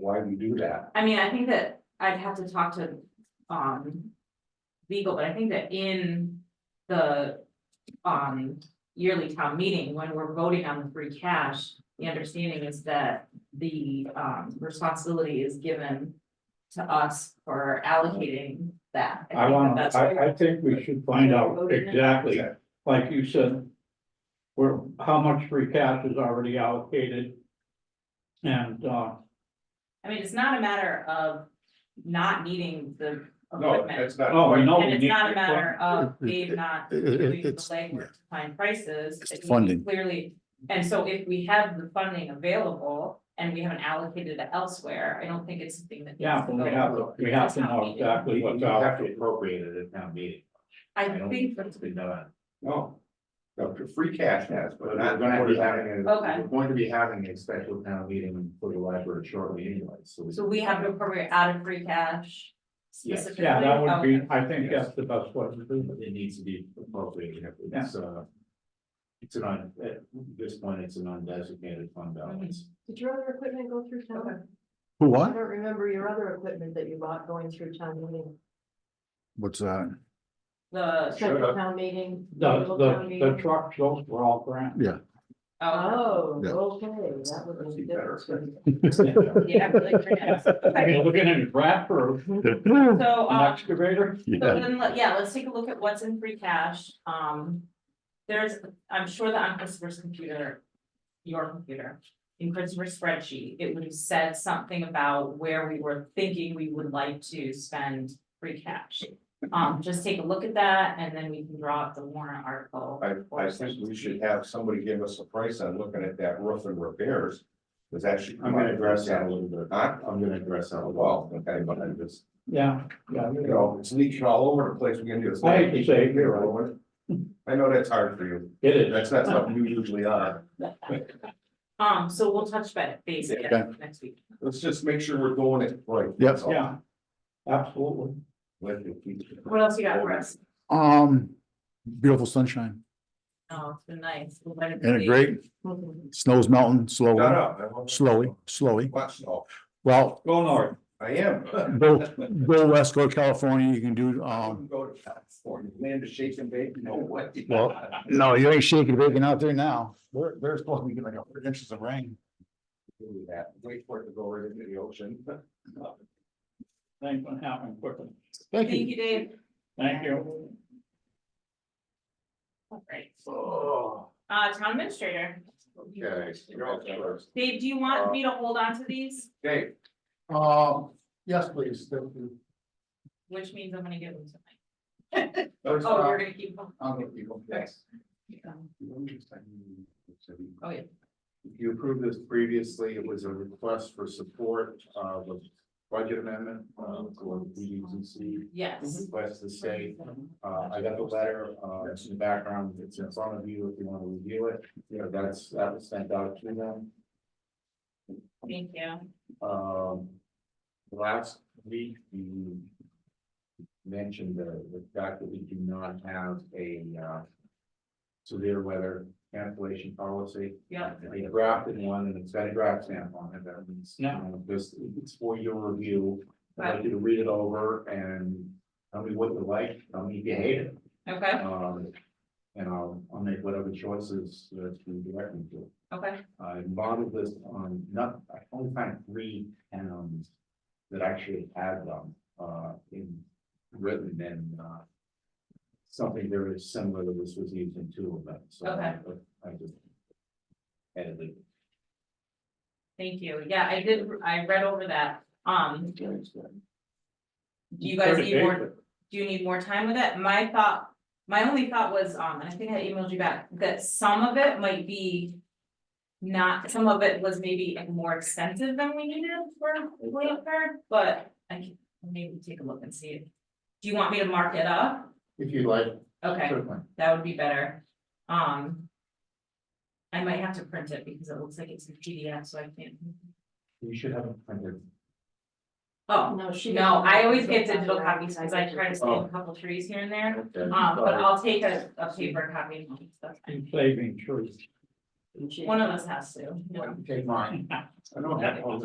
why we do that. I mean, I think that I'd have to talk to, um. Legal, but I think that in the, um, yearly town meeting, when we're voting on the free cash. The understanding is that the, um, responsibility is given to us for allocating that. I think that want, that's where- I, I think we should find out exactly, like you said, where, how much free cash is already allocated. And, uh, I mean, it's not a matter of not needing the No, equipment. it's not. oh, we know. And we it's need- not a matter of Dave not It- doing it- the it's- legwork to find prices. It's it the funding. Clearly, and so if we have the funding available and we haven't allocated it elsewhere, I don't think it's something that. needs Yeah, to but we go have, to- forward. we have That's to not know needed. exactly But what's you have to allocated. appropriate it at town meeting. I don't think, It's been done. No, No, the free cash has, but But not we're gonna gonna be be- having, a- Okay. we're going to be having a special town meeting for the library shortly anyway, so. we- so we have to appropriate out of free cash Yes. specifically. yeah, that would be, Okay. I think that's the best way to do it. It needs to be appropriated, it's, uh. It's an, un- at this point, it's an undesignated fund balance. Did your other equipment go through town? Who I what? don't remember your other equipment that you bought going through town meeting, What's that? The, central town meeting. The, local town the, the meeting. trucks, those were all grants. oh, Oh, Yeah. okay, that would be Better. different. yeah, really, yes. You're looking at a grant for Mm-hmm. Yeah. So, an um, excavator? So then, let- yeah, let's take a look at what's in free cash, um. There's, I'm sure that on Christopher's computer, your computer, in Christopher's spreadsheet, it would have said something about where we were thinking we would like to spend free cash. Um, just take a look at that and then we can draw up the warrant article. I, I or think we should have somebody give us a price on looking at that roof and repairs. Cause that should. I'm gonna address that a little bit. Huh? I'm gonna address that. Well, okay, but I just, Yeah, yeah. you know, it's leaking all over the place. We can do this. I hate to say it, You're right, Owen. I know that's hard for you. It is. That's not something you usually are. Um, so we'll touch ba- base again next week. Let's just make sure we're doing it right. Yep. That's all. Yeah, absolutely. Let the people- What else you got for us? Um, beautiful sunshine Oh, it's been nice. We'll let it and a be. great, snow's melting Shut slowly, up. I won't- slowly, slowly. Watch, oh, Well, Go north. I am. go, go west, go to California, you can do, I um, wouldn't Go to California, land of shake and bake, no way. Well, no, you ain't shaking, baking out there now. They're, they're supposed to be getting like a hundred inches of rain. Do that, wait for it to go right into the ocean. Things will happen quickly. Thank Thank you. you, Dave. Thank you. All right. Oh, Uh, town administrator. okay, you're all Uh, first. Dave, do you want me to hold on to these? Dave, Um, yes, please. Which means I'm gonna give them to Mike. first Oh, you're off, gonna keep them? I'm with you. Yes. Oh, yeah. You approved this previously, it was a request for support of a budget amendment, uh, for PUCC. Yes. Request to say, uh, I got the letter, uh, it's in the background, it's in front of you if you want to review it, you know, that's, that was sent out to them. Thank you. Um, last week, you mentioned the, the fact that we do not have a, uh, severe weather cancellation policy. Yeah. We drafted one and it's got a draft stamp on it, that means, you know, this, it's for your review. I'd like you to read it over and tell me what you like, tell me if you hate it, Okay, um, and I'll, I'll make whatever choices that you direct me to. okay. I modeled this on, not, I only found three towns that actually had them, uh, in Britain and, uh. Something very similar to this was used in two of them, so. I- I just. Edited. Thank you. Yeah, I did, I read over that. Um, do you guys need more, do you need more time with it? My thought, my only thought was, um, and I think I emailed you back, that some of it might be not, some of it was maybe more expensive than we needed for Blanford, but I can maybe take a look and see. Do you want me to mark it up? If you like. Okay, certainly. that would be better. Um. I might have to print it because it looks like it's in PDF, so I can't. You should have it printed. Oh, No, she. no, I always doesn't. get digital copies because I try to save a couple trees here and there. Okay. Um, but I'll take a, a paper copy. and stuff. In saving trees. One of us has to. Take mine. I don't have all